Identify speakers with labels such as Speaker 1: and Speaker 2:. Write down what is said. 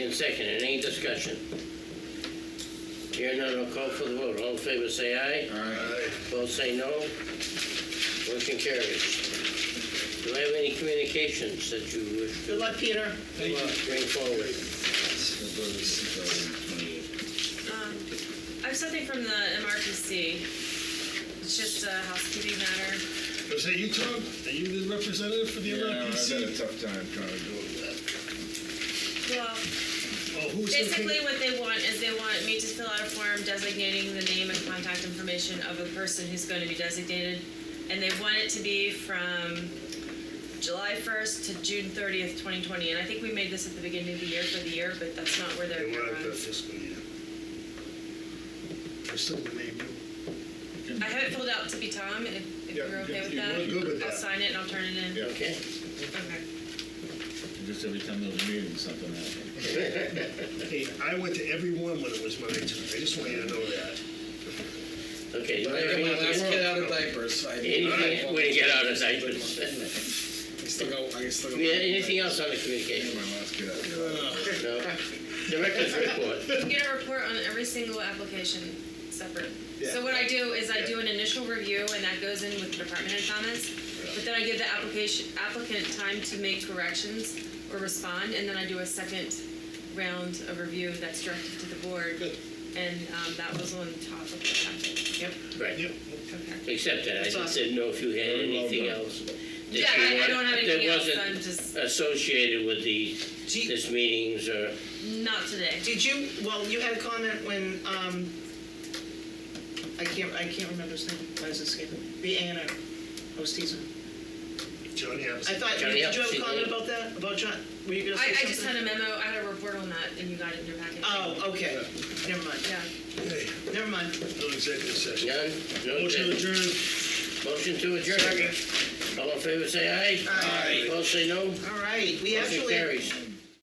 Speaker 1: In second, and any discussion? Hearing none, I'll call for the vote. All in favor, say aye. Both say no. Motion carries. Do you have any communications that you wish
Speaker 2: Good luck, Peter.
Speaker 1: to bring forward?
Speaker 3: Um, I have something from the MRPC. It's just a housekeeping matter.
Speaker 4: Is that you, Tom? Are you the representative for the
Speaker 5: Yeah, I've had
Speaker 4: MRPC?
Speaker 5: a tough time trying to do it.
Speaker 3: Well,
Speaker 4: Oh, who's gonna take-
Speaker 3: basically what they want is they want me to fill out a form designating the name and contact information of a person who's going to be designated. And they want it to be from July 1st to June 30th, 2020. And I think we made this at the beginning of the year for the year, but that's not where they're
Speaker 4: They want it
Speaker 3: going.
Speaker 4: the fiscal year. I still the name, you.
Speaker 3: I have it filled out to be Tom, if, if
Speaker 4: Yeah,
Speaker 3: you're okay
Speaker 4: if
Speaker 3: with
Speaker 4: you-
Speaker 3: that.
Speaker 4: we're good with
Speaker 3: I'll
Speaker 4: that.
Speaker 3: sign it and I'll turn it in.
Speaker 5: Yeah.
Speaker 1: Okay.
Speaker 3: Okay.
Speaker 5: Just every time there's a meeting, something happens.
Speaker 4: Hey, I went to every one when it was my turn. I just want you to know that.
Speaker 1: Okay. do you
Speaker 6: But I
Speaker 1: have
Speaker 6: got my last
Speaker 1: anything-
Speaker 6: kid out of diapers. I
Speaker 1: Anything, way to get out of diapers.
Speaker 6: I still go. I still go.
Speaker 1: Do you have anything else on the communication?
Speaker 5: My last kid, I-
Speaker 1: No? Director's report.
Speaker 3: You get a report on every single application separate.
Speaker 6: Yeah.
Speaker 3: So what I do is I do an initial review and that goes in with the department head comments. But then I give the application, applicant time to make corrections or respond, and then I do a second round of review that's directed to the board. And um, that was on top of the packet. Yep.
Speaker 1: Right.
Speaker 4: Yep.
Speaker 3: Okay.
Speaker 1: Except that I just didn't know if you had
Speaker 5: Very well
Speaker 1: anything
Speaker 5: done.
Speaker 1: else. that
Speaker 3: Yeah,
Speaker 1: you
Speaker 3: I I
Speaker 1: want-
Speaker 3: don't have
Speaker 1: that
Speaker 3: anything else,
Speaker 1: wasn't
Speaker 3: I'm just,
Speaker 1: Associated with the, this meetings uh, or,
Speaker 3: not today.
Speaker 2: Did you, well, you had a comment when, um, I can't, I can't remember his name, why is it escaping me? The A and R, I was teasing.
Speaker 4: Johnny
Speaker 2: I
Speaker 4: Appleseed.
Speaker 2: thought,
Speaker 1: Johnny
Speaker 2: did you have
Speaker 1: Appleseed,
Speaker 2: a comment
Speaker 1: yeah.
Speaker 2: about that, about John, were you gonna
Speaker 3: I,
Speaker 2: say
Speaker 3: I
Speaker 2: something?
Speaker 3: just had a memo, I had a report on that, and you got it in your packet.
Speaker 2: Oh, okay, never mind,
Speaker 3: Yeah.
Speaker 4: Hey,
Speaker 2: never mind.
Speaker 4: no executive session.
Speaker 1: none? No
Speaker 4: Motion
Speaker 1: objection.
Speaker 4: adjourned.
Speaker 1: Motion to adjourn. All in favor, say aye.
Speaker 2: Aye.
Speaker 1: Opposed, say no.
Speaker 2: All right, we
Speaker 1: Motion
Speaker 2: actually,
Speaker 1: carries.